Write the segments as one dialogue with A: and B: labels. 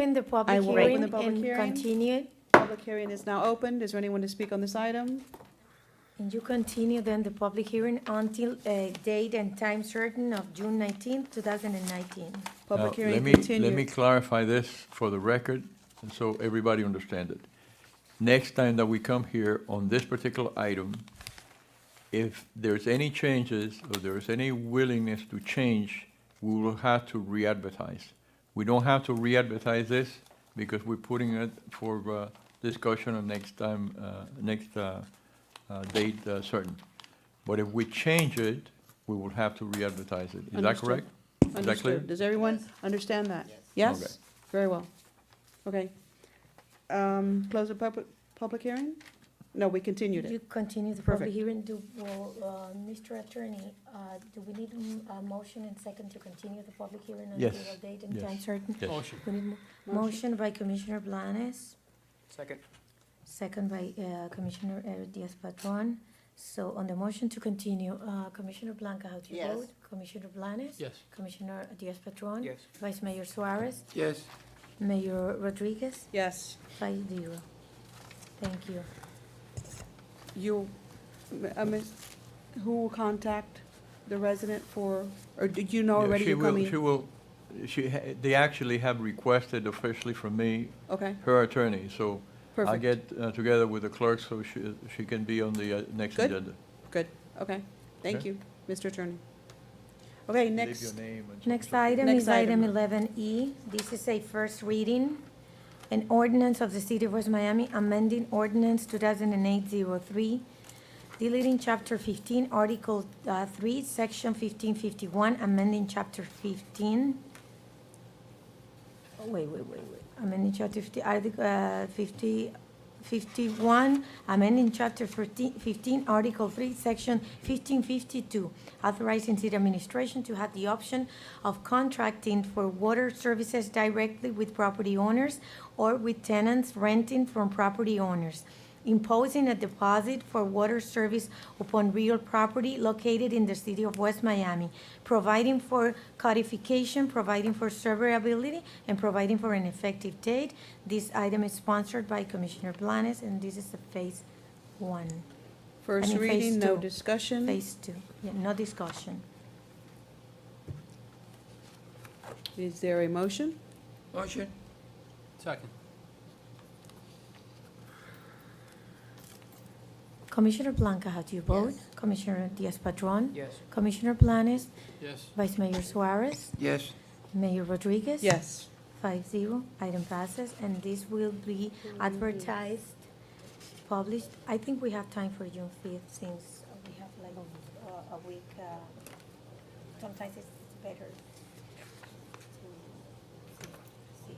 A: Open the
B: I
A: public
B: will open
A: hearing
B: the public
A: and
B: hearing.
A: continue,
B: Public hearing is now opened. Is there anyone to speak on this item?
A: and you continue then the public hearing until a date and time certain of June nineteenth, two thousand and nineteen.
B: Public
C: Now,
B: hearing
C: let me- Let me
B: continued.
C: clarify this for the record, and so everybody understand it. Next time that we come here on this particular item, if there's any changes, or there's any willingness to change, we will have to re-advertise. We don't have to re-advertise this, because we're putting it for uh, discussion on next time, uh, next uh, uh, date uh, certain. But if we change it, we will have to re-advertise it. Is that
B: Understood.
C: correct? Is that clear?
B: Understood. Does everyone understand that? Yes?
C: Okay.
B: Very well. Okay. Um, Close the public, public hearing? No, we continued
A: You
B: it.
A: continue the public
B: Perfect.
A: hearing, do, well, uh, Mr. Attorney, uh, do we need mm, a motion and second to continue the public hearing until
C: Yes.
A: a date and
C: Yes.
A: time certain?
C: Yes.
A: We need a Motion by Commissioner Blanes,
D: Second.
A: second by uh, Commissioner uh, Diaz-Patron. So on the motion to continue, uh, Commissioner Blanca, how do you
D: Yes.
A: vote? Commissioner Blanes?
D: Yes.
A: Commissioner Diaz-Patron?
D: Yes.
A: Vice Mayor Suarez?
D: Yes.
A: Mayor Rodriguez?
B: Yes.
A: Five zero. Thank you.
B: You, uh, miss- who will contact the resident for, or did you know
C: Yeah,
B: already
C: She
B: you're
C: will. She
B: coming?
C: will, she, ha- they actually have requested officially from me,
B: Okay,
C: her attorney, so I'll
B: perfect.
C: get uh, together with the clerk so she, she can be on the uh, next
B: Good.
C: agenda.
B: Good, okay. Thank
C: Okay.
B: you, Mr. Attorney. Okay,
C: Leave
B: next,
C: your name and-
A: Next item
B: Next
A: is item
B: item.
A: eleven E. This is a first reading. An ordinance of the City of West Miami amending ordinance 2008-03, deleting chapter fifteen, article uh, three, section fifteen fifty-one, amending chapter fifteen. Oh, Wait, wait, wait, wait. Amending chapter fifty, article, uh, fifty, fifty-one, amending chapter 14 15, article three, section fifteen fifty-two, authorizing city administration to have the option of contracting for water services directly with property owners or with tenants renting from property owners, imposing a deposit for water service upon real property located in the city of West Miami, providing for codification, providing for severability, and providing for an effective date. This item is sponsored by Commissioner Blanes, and this is the phase one, I
B: first
A: mean, phase
B: reading, no
A: two.
B: discussion.
A: phase two, yeah, no discussion.
B: Is there a motion?
D: Motion. Second.
A: Commissioner Blanca, how do you vote? Commissioner Diaz-Padrón?
D: Yes.
A: Commissioner Blanes?
D: Yes.
A: Vice Mayor Suarez?
D: Yes.
A: Mayor Rodriguez?
B: Yes.
A: Five zero, item passes, and this will be advertised, published. I think we have time for June fifth since we have like
E: Oh.
A: uh, a week. uh, Sometimes it's better to see.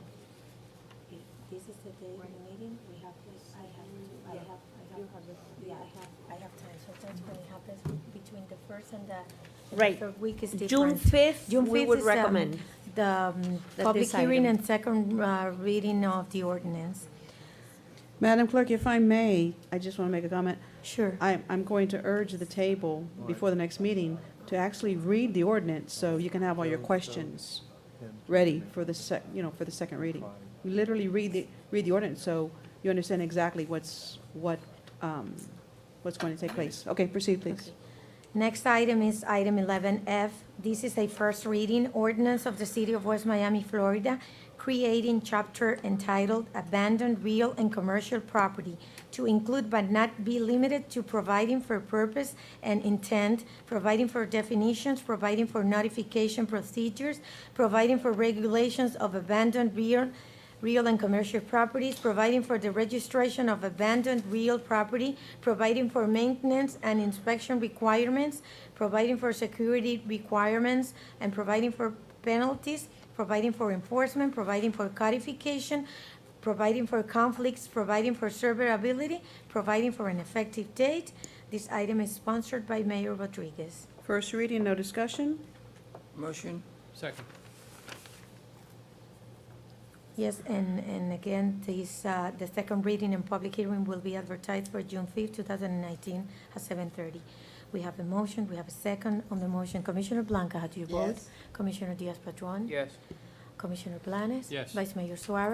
A: If This is the day of the meeting, we have, to- I have, to- I have, I have, yeah, I have, I have time. Sometimes when it happens between the first and the.
E: Right.
A: third Week is different.
E: June 5th,
A: June
E: we
A: 5th
E: would
A: is, um,
E: recommend.
A: the um,
E: That
A: public
E: this
A: hearing
E: item-
A: and second uh, reading of the ordinance.
B: Madam Clerk, if I may, I just want to make a comment.
A: Sure.
B: I, I'm going to urge the table before the next meeting to actually read the ordinance so you can have all your questions ready for the sec, you know, for the second reading. You Literally read the, read the ordinance so you understand exactly what's, what, um, what's going to take place. Okay, proceed, please.
A: Next item is item 11F. This is a first reading ordinance of the City of West Miami, Florida, creating chapter entitled Abandoned Real and Commercial Property to include but not be limited to providing for purpose and intent, providing for definitions, providing for notification procedures, providing for regulations of abandoned real real and commercial properties, providing for the registration of abandoned real property, providing for maintenance and inspection requirements, providing for security requirements, and providing for penalties, providing for enforcement, providing for codification, providing for conflicts, providing for severability, providing for an effective date. This item is sponsored by Mayor Rodriguez.
B: First reading, no discussion?
D: Motion. Second.
A: Yes, and, and again, this, uh, the second reading and public hearing will be advertised for June fifth, two thousand and nineteen, at seven thirty. We have a motion, we have a second on the motion. Commissioner Blanca, how do you vote?
D: Yes.
A: Commissioner Diaz-Padrón?
D: Yes.
A: Commissioner Blanes?
D: Yes.
A: Vice Mayor Suarez?